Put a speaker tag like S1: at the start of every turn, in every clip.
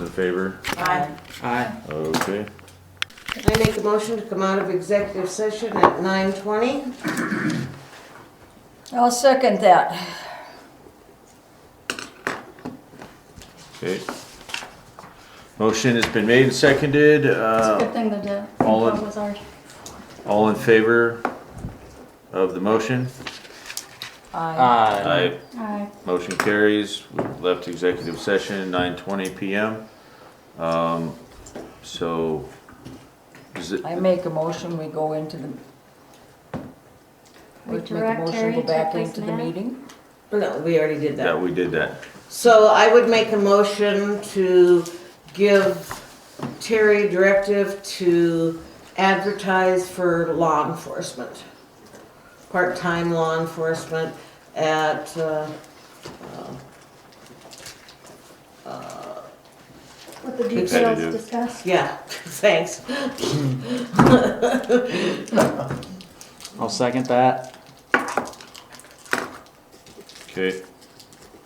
S1: in favor?
S2: Aye.
S3: Aye.
S1: Okay.
S4: I make a motion to come out of executive session at nine twenty.
S2: I'll second that.
S1: Okay. Motion has been made and seconded.
S5: It's a
S1: Uh,
S5: good thing that the
S1: all in-
S5: phone was ours.
S1: all in favor of the motion?
S2: Aye.
S3: Aye.
S5: Aye.
S1: Motion carries. We Left executive session nine twenty PM. Um, so, is it,
S2: I make a motion, we go into the.
S5: We
S2: Let's make a
S5: direct
S2: motion,
S5: Terry
S2: go
S5: to
S2: back
S5: place
S2: into the
S5: an ad.
S2: meeting.
S4: No, we already did
S1: yeah,
S4: that.
S1: we did that.
S4: So I would make a motion to give Terry directive to advertise for law enforcement. Part-time law enforcement at, uh, uh, uh,
S5: With the
S1: Competitive.
S5: details discussed.
S4: yeah, thanks.
S3: I'll second that.
S1: Okay.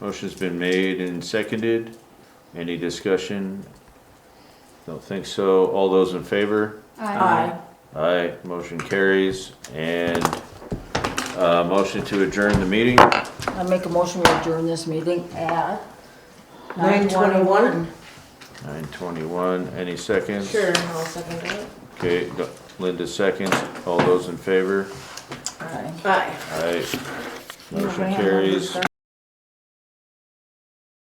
S1: Motion's been made and seconded. Any discussion? Don't think so. All those in favor?
S5: Aye.
S1: Aye, motion carries. And, uh, motion to adjourn the meeting?
S2: I make a motion, we adjourn this meeting at.
S4: Nine twenty-one?
S1: Nine twenty-one, any seconds?
S4: Sure, I'll second that.
S1: Okay, Linda seconds. All those in favor?
S2: Aye.
S4: Aye.
S1: Aye.
S2: Remember, I
S1: Motion
S2: had one
S1: carries.
S2: other